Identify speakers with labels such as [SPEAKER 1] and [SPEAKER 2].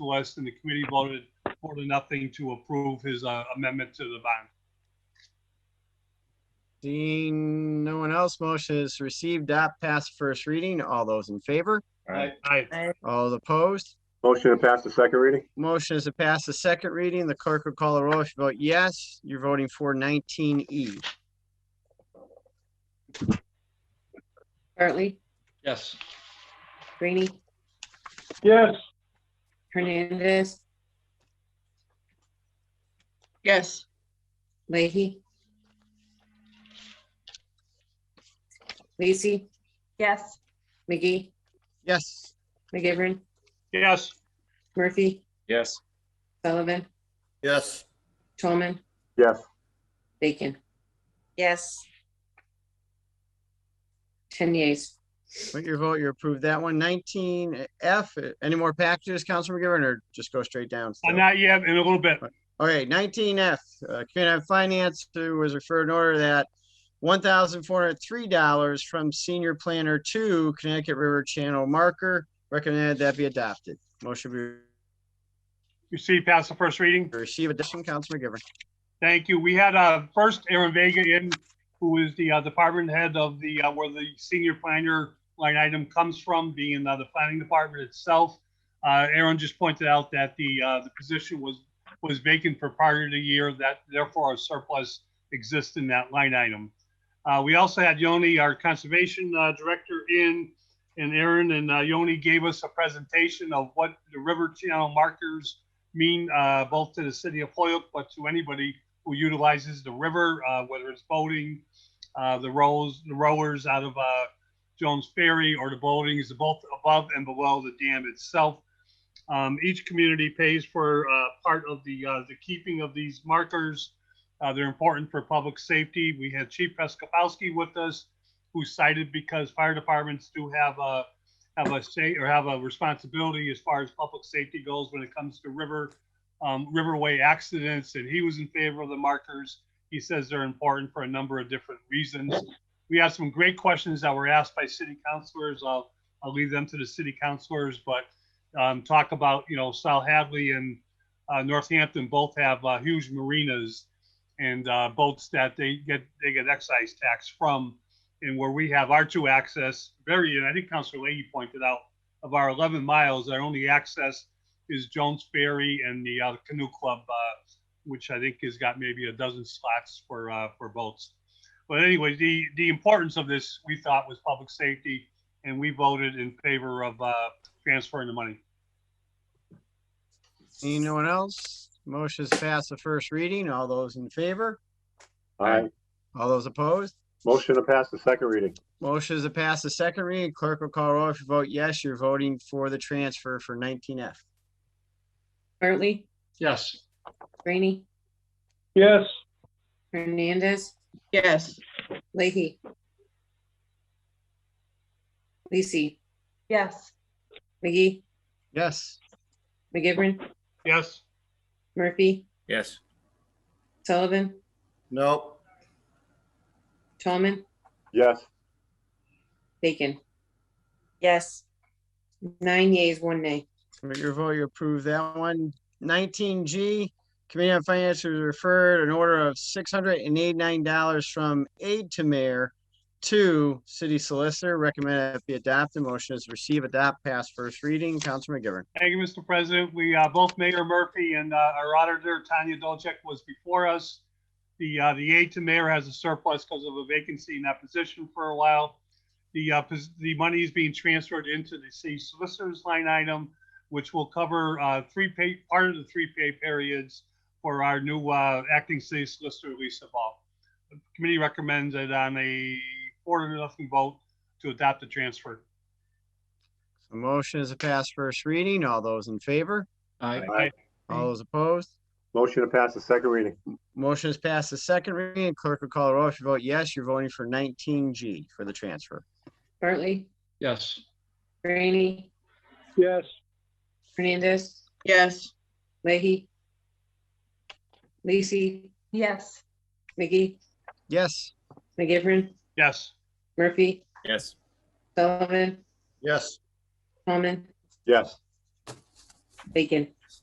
[SPEAKER 1] to us, and the committee voted four to nothing to approve his uh, amendment to the bond.
[SPEAKER 2] Seeing no one else, motion is received, adopt, pass first reading. All those in favor?
[SPEAKER 3] Aye.
[SPEAKER 1] Aye.
[SPEAKER 2] All opposed?
[SPEAKER 3] Motion to pass the second reading?
[SPEAKER 2] Motion is to pass the second reading. The clerk will call the roll. If you vote yes, you're voting for nineteen E.
[SPEAKER 4] Bartley,
[SPEAKER 5] yes,
[SPEAKER 4] Greeny,
[SPEAKER 1] Yes.
[SPEAKER 4] Hernandez,
[SPEAKER 6] yes,
[SPEAKER 4] Leahy. Lacy,
[SPEAKER 7] yes,
[SPEAKER 4] McGee,
[SPEAKER 2] Yes,
[SPEAKER 4] McGivern,
[SPEAKER 1] Yes.
[SPEAKER 4] Murphy,
[SPEAKER 3] Yes.
[SPEAKER 4] Sullivan,
[SPEAKER 8] yes,
[SPEAKER 4] Tolman,
[SPEAKER 3] Yes.
[SPEAKER 4] Bacon,
[SPEAKER 6] yes,
[SPEAKER 4] ten yeas.
[SPEAKER 2] with your vote, you approve that one. Nineteen F, any more packages, Councilman McGivern, or just go straight down? still?
[SPEAKER 1] Uh, Not yet, in a little bit.
[SPEAKER 2] All right, nineteen F, uh, Committee on Finance to was referred an order that one thousand four hundred three dollars from Senior Planner to Connecticut River Channel Marker. Recommended that be adopted. Motion be
[SPEAKER 1] You see, pass the first reading.
[SPEAKER 2] received. Addition, Councilman McGivern.
[SPEAKER 1] Thank you. We had, uh, first Aaron Vega in, who is the, uh, department head of the, uh, where the senior planner line item comes from, being, uh, the planning department itself. Uh, Aaron just pointed out that the, uh, the position was, was vacant for prior to the year, that therefore a surplus exists in that line item. Uh, we also had Yoni, our conservation, uh, director in, and Aaron and, uh, Yoni gave us a presentation of what the river channel markers mean uh, both to the city of Hoyoke, but to anybody who utilizes the river, uh, whether it's boating, uh, the rows, the rowers out of uh, Jones Ferry, or the boatings, both above and below the dam itself. Um, each community pays for uh, part of the uh, the keeping of these markers. Uh, they're important for public safety. We had Chief Peskopowski with us, who cited because fire departments do have a have a say or have a responsibility as far as public safety goes when it comes to river, um, riverway accidents, and he was in favor of the markers. He says they're important for a number of different reasons. We have some great questions that were asked by city councilors. I'll, I'll leave them to the city councilors, but, um, talk about, you know, South Hadley and, uh, Northampton both have, uh, huge marinas and, uh, boats that they get, they get excise tax from and where we have our two access, very, and I think Councilor Leahy pointed out, of our 11 miles, our only access is Jones Ferry and the uh, Canoe Club, uh, which I think has got maybe a dozen slots for, uh, for boats. But anyway, the, the importance of this, we thought, was public safety, and we voted in favor of uh, transferring the money.
[SPEAKER 2] Seeing no one else, motion is passed the first reading. All those in favor?
[SPEAKER 3] Aye.
[SPEAKER 2] All those opposed?
[SPEAKER 3] Motion to pass the second reading?
[SPEAKER 2] Motion is to pass the second reading. Clerk will call roll. If you vote yes, you're voting for the transfer for nineteen F.
[SPEAKER 4] Bartley,
[SPEAKER 5] yes.
[SPEAKER 4] Greeny,
[SPEAKER 1] Yes.
[SPEAKER 4] Hernandez,
[SPEAKER 6] yes.
[SPEAKER 4] Leahy. Lacy,
[SPEAKER 7] yes.
[SPEAKER 4] McGee,
[SPEAKER 2] Yes.
[SPEAKER 4] McGivern,
[SPEAKER 1] Yes.
[SPEAKER 4] Murphy,
[SPEAKER 3] Yes.
[SPEAKER 4] Sullivan,
[SPEAKER 8] no,
[SPEAKER 4] Tolman,
[SPEAKER 3] Yes.
[SPEAKER 4] Bacon.
[SPEAKER 6] Yes.
[SPEAKER 4] Nine yeas, one nay.
[SPEAKER 2] With your vote, you approve that one. Nineteen G, Committee on Finance has referred an order of six hundred and eighty-nine dollars from aid to mayor to city solicitor. Recommend it be adopted. Motion is receive, adopt, pass first reading. Councilman McGivern.
[SPEAKER 1] Thank you, Mr. President. We, uh, both Mayor Murphy and, uh, our auditor Tanya Dolcek was before us. The, uh, the aide to mayor has a surplus because of a vacancy in that position for a while. The, uh, pos- the money is being transferred into the city solicitor's line item, which will cover, uh, three pay, part of the three pay periods for our new, uh, acting city solicitor, Lisa Ball. The Committee recommends it on a four to nothing vote to adopt the transfer.
[SPEAKER 2] The motion is to pass first reading. All those in favor?
[SPEAKER 5] Aye.
[SPEAKER 2] All those opposed?
[SPEAKER 3] Motion to pass the second reading?
[SPEAKER 2] Motion is passed the second reading. Clerk will call the roll. If you vote yes, you're voting for nineteen G for the transfer.
[SPEAKER 4] Bartley,
[SPEAKER 5] Yes.
[SPEAKER 4] Greeny,
[SPEAKER 1] Yes.
[SPEAKER 4] Hernandez,
[SPEAKER 6] Yes.
[SPEAKER 4] Leahy. Lacy,
[SPEAKER 7] Yes.
[SPEAKER 4] McGee,
[SPEAKER 2] Yes.
[SPEAKER 4] McGivern,
[SPEAKER 1] Yes.
[SPEAKER 4] Murphy,
[SPEAKER 3] Yes.
[SPEAKER 4] Sullivan,
[SPEAKER 8] yes.
[SPEAKER 4] Tolman,
[SPEAKER 3] Yes.
[SPEAKER 4] Bacon,